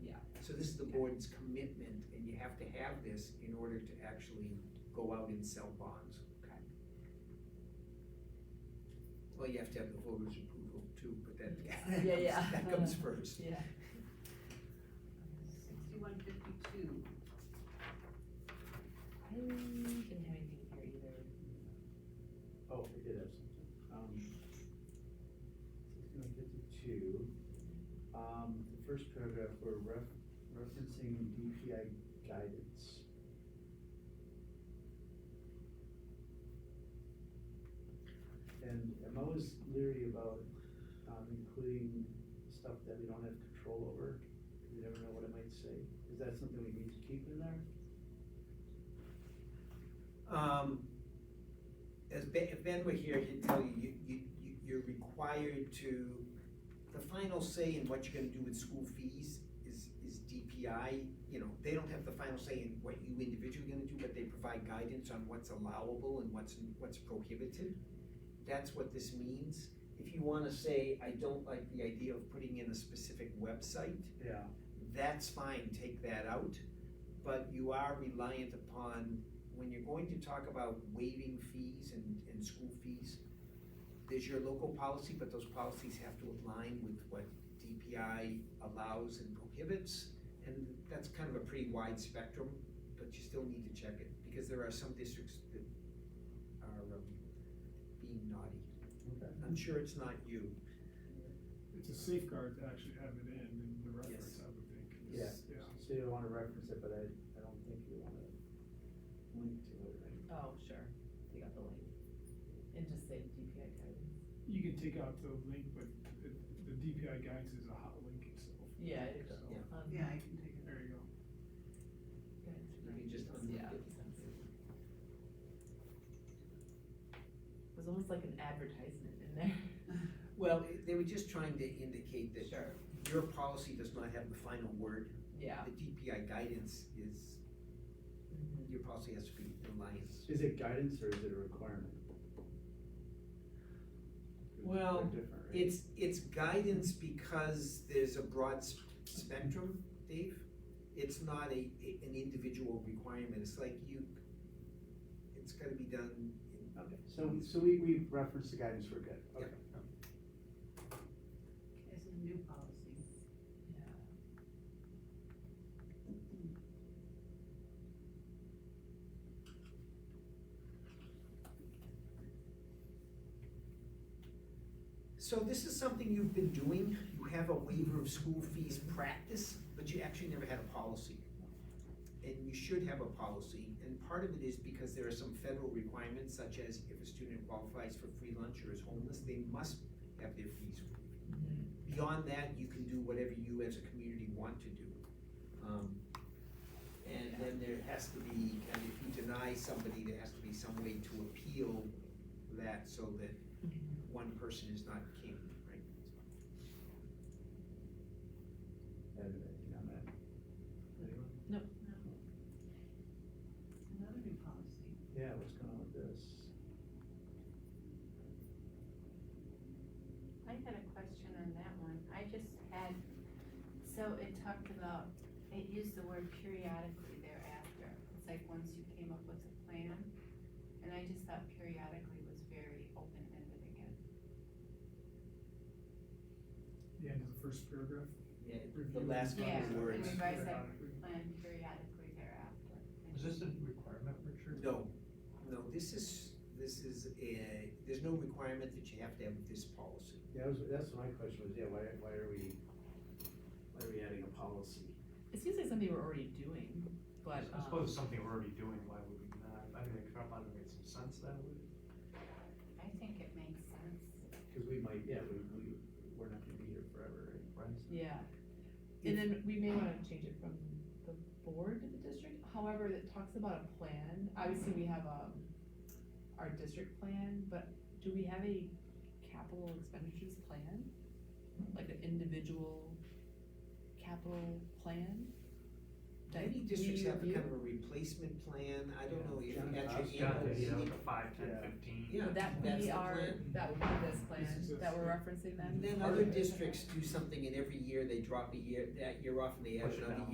So this is the board's commitment, and you have to have this in order to actually go out and sell bonds. Okay. Well, you have to have the voters' approval too, but that, Yeah, yeah. that comes Uh-huh. first. Yeah. Sixty-one fifty-two, I didn't have anything here either. Oh, we did have something. Um, sixty-one fifty-two, um, the first paragraph, we're ref- referencing DPI guidance. And I'm always leery about, um, including stuff that we don't have control over, 'cause you never know what it might say. Is that something we need to keep in there? Um, as Ben, if Ben were here, he'd tell you, you, you, you- you're required to, the final say in what you're gonna do with school fees is, is DPI. You know, they don't have the final say in what you individually gonna do, but they provide guidance on what's allowable and what's, what's prohibited. That's what this means. If you wanna say, I don't like the idea of putting in a specific website, Yeah. that's fine, take that out. But you are reliant upon, when you're going to talk about waiving fees and, and school fees, there's your local policy, but those policies have to align with what DPI allows and prohibits. And that's kind of a pretty wide spectrum, but you still need to check it, because there are some districts that are um, being naughty. Okay. I'm sure it's not you. It's a safeguard to actually have it in, in the reference, I would think. is- Yeah. So you don't wanna reference it, but I, I don't think you wanna link to it, right? Oh, sure, we got the link. And just say DPI guidance. You can take out the link, but the, the DPI guides is a hot link itself. Yeah, it is. So, Yeah. Um, yeah, I can take it. There you go. guidance. You can just Yeah. unlink it. It was almost like an advertisement in there. Well, they were just trying to indicate that Sure. your policy does not have the final word. Yeah. The DPI guidance is, Mhm. your policy has to be in alliance. Is it guidance or is it a requirement? Well, They're different, right? It's, it's guidance because there's a broad s- spectrum, Dave. It's not a, a- an individual requirement, it's like you, it's gotta be done in, Okay, so, so we, we referenced the guidance, we're good, Yeah. okay. It's a new policy. Yeah. So this is something you've been doing, you have a waiver of school fees practice, but you actually never had a policy. And you should have a policy, and part of it is because there are some federal requirements, such as if a student qualifies for free lunch or is homeless, they must have their fees. Mm-hmm. Mhm. Beyond that, you can do whatever you as a community want to do. Um, And then there has to be, and if you deny somebody, there has to be some way to appeal that so that Mm-hmm. one person is not king, right? And, you know, that- anyone? Another new policy. Yeah, what's going on with this? I had a question on that one. I just had, so it talked about, it used the word periodically thereafter. It's like once you came up with a plan, and I just thought periodically was very open-ended again. The end of the first paragraph. Yeah, Review the last and couple Yeah, of and words. we revise that periodically. plan periodically thereafter. Is this a requirement, Richard? No, no, this is, this is, a- there's no requirement that you have to have this policy. Yeah, that was, that's my question was, yeah, why, why are we, why are we adding a policy? It seems like something we're already doing, but, I suppose it's um, something we're already doing, why would we not? I mean, it probably made some sense that way. um, I think it makes sense. Cause we might, yeah, we, we, we're not gonna be here forever, right? yeah. And then we may wanna change it from the board to the district, however, it talks about a plan, obviously we have, um, our district plan, but do we have a capital expenditures plan? Like an individual capital plan? that Many districts we have a review? kind of a replacement plan, I don't know if you Yeah. got your Yeah. annual you know, meeting. the five, ten, Yeah. fifteen. Yeah, That would that's be the our, plan. that would be this This plan is that us. we're referencing then? And then Part other of it. districts do something and every year they drop a year, that year off and they add Push it another down.